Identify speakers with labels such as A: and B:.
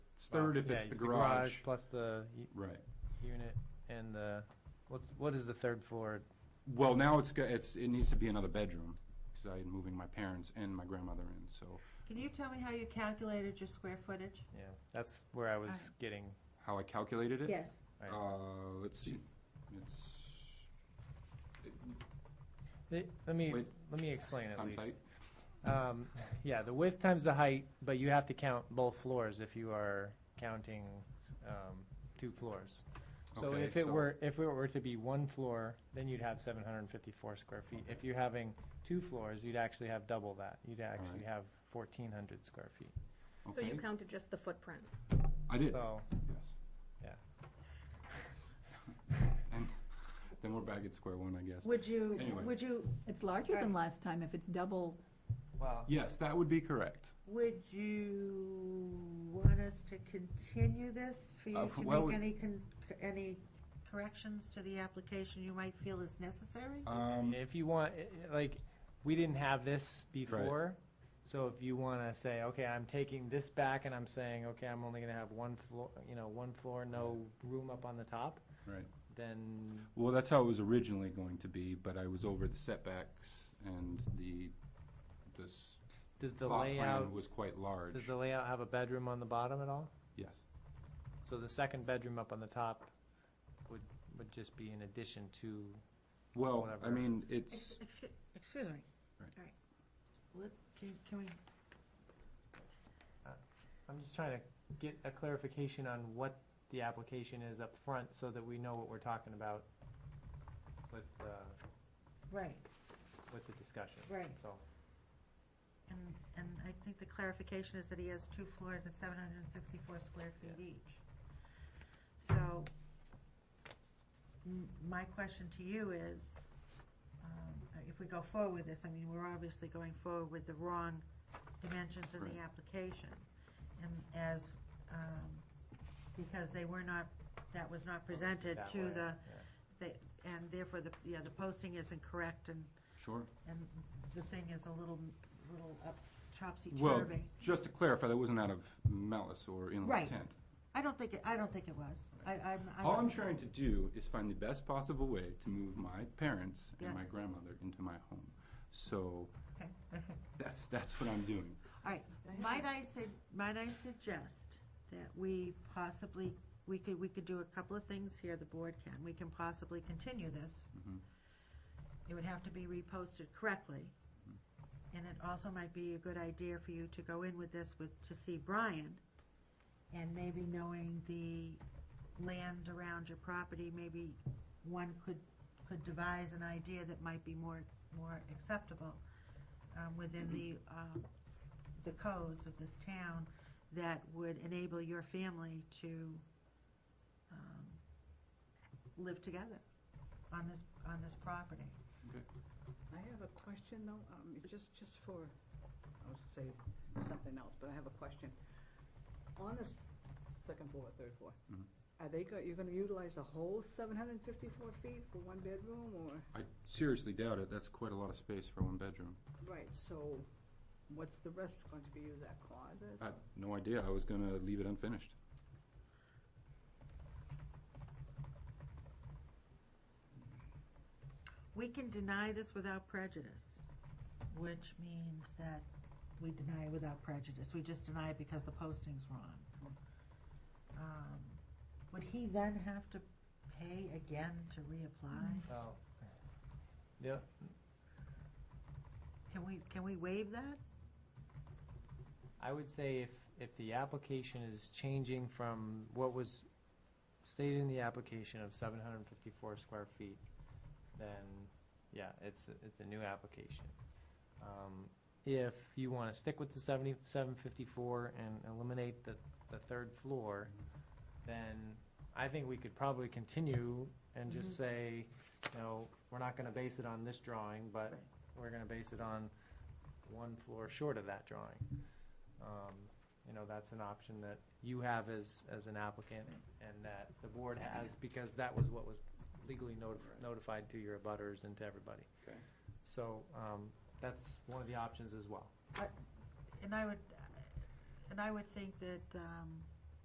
A: It's third if
B: Oh, Yeah,
A: it's the garage.
B: Plus the u-
A: Right.
B: unit and the, what's, what is the third floor?
A: Well, now it's, go- it's, it needs to be another bedroom, because I am moving my parents and my grandmother in, so
C: Can you tell me how you calculated your square footage?
B: Yeah, that's where I was
C: Alright.
B: getting,
A: how I calculated it?
C: Yes.
B: Right.
A: Uh, let's see, it's,
B: let let me,
A: Wait.
B: let me explain at
A: I'm
B: least.
A: tight.
B: Um, yeah, the width times the height, but you have to count both floors if you are counting, um, two floors. So
A: Okay,
B: if it
A: so-
B: were, if it were to be one floor, then you'd have seven hundred and fifty-four square feet. If you're having two floors, you'd actually have double that. You'd actually
A: Alright.
B: have fourteen hundred square feet.
D: So you
A: Okay.
D: counted just the footprint.
A: I did,
B: So,
A: yes.
B: Yeah.
A: And then we're back at square one, I guess.
C: Would you,
A: Anyway.
C: would you,
E: It's larger than last time if it's double.
B: well,
A: Yes, that would be correct.
C: would you want us to continue this for
A: Uh,
C: you to
A: well,
C: make any, con- any corrections to the application you might feel is necessary?
A: Um,
B: If you want, eh, eh, like, we didn't have this before, so if you want to say, okay, I'm taking this back and I'm saying, okay, I'm only going to have one floor, you know, one floor, no room up on the top,
A: right.
B: then,
A: Well, that's how it was originally going to be, but I was over the setbacks and the, this
B: does the
A: plot
B: layout,
A: plan was quite large.
B: does the layout have a bedroom on the bottom at all?
A: Yes,
B: So the second bedroom up on the top would, would just be in addition to,
A: well, I
B: Whatever.
A: mean,
C: Ex-
A: it's,
C: ex- Excuse me.
A: Right.
C: All right. Let- Can can we,
B: I'm just trying to get a clarification on what the application is up front so that we know what we're talking about with, uh,
C: right,
B: with the discussion.
C: Right.
B: So,
C: and, and I think the clarification is that he has two floors at seven hundred and sixty-four square feet each. So, m- my question to you is, um, if we go forward with this, I mean, we're obviously going forward with the wrong dimensions in
A: Right.
C: the application. And as, um, because they were not, that was not presented
B: that
C: to
B: way,
C: the,
B: yeah.
C: they- and therefore the, yeah, the posting isn't correct and
A: sure.
C: and the thing is a little, little up
A: Well,
C: topsy-turvy.
A: just to clarify, that wasn't out of malice or ill
C: Right.
A: intent.
C: I don't think, it I don't think it was. I, I'm. I
A: All
C: don't-
A: I'm trying to do is find the best possible way to move my parents
C: Yeah.
A: and my grandmother into my home. So
C: Okay.
A: that's, that's what I'm doing.
C: All right, might I say, might I suggest that we possibly, we could, we could do a couple of things here, the board can. We can possibly continue this.
A: Mhm.
C: It would have to be reposted correctly. And it also might be a good idea for you to go in with this with, to see Brian. And maybe knowing the land around your property, maybe one could, could devise an idea that might be more, more acceptable um, within the, um, the codes of this town that would enable your family to um, live together on this, on this property.
F: I have a question though, um, it- just, just for, I was gonna say something else, but I have a question. On the s- second floor, third floor,
A: Mhm.
F: are they go, you're gonna utilize the whole seven hundred and fifty-four feet for one bedroom or?
A: I seriously doubt it. That's quite a lot of space for one bedroom.
F: Right, so what's the rest going to be used, that closet?
A: I had no idea. I was going to leave it unfinished.
C: We can deny this without prejudice, which means that we deny it without prejudice. We just deny it because the posting's wrong. Um, Would he then have to pay again to reapply?
B: Well, yeah,
C: Can we, can we waive that?
B: I would say if, if the application is changing from what was stated in the application of seven hundred and fifty-four square feet, then, yeah, it's, a- it's a new application. Um, If you want to stick with the seventy-seven fifty-four and eliminate the, the third floor, then I think we could probably continue and just say, you know, we're not going to base it on this drawing, but
C: Right.
B: we're going to base it on one floor short of that drawing um, you know, that's an option that you have as, as an applicant and that the board has, because that was what was legally notif- notified to your abutters and to everybody.
A: Okay.
B: So, um, that's one of the options as well.
C: And I would, and I would think that um,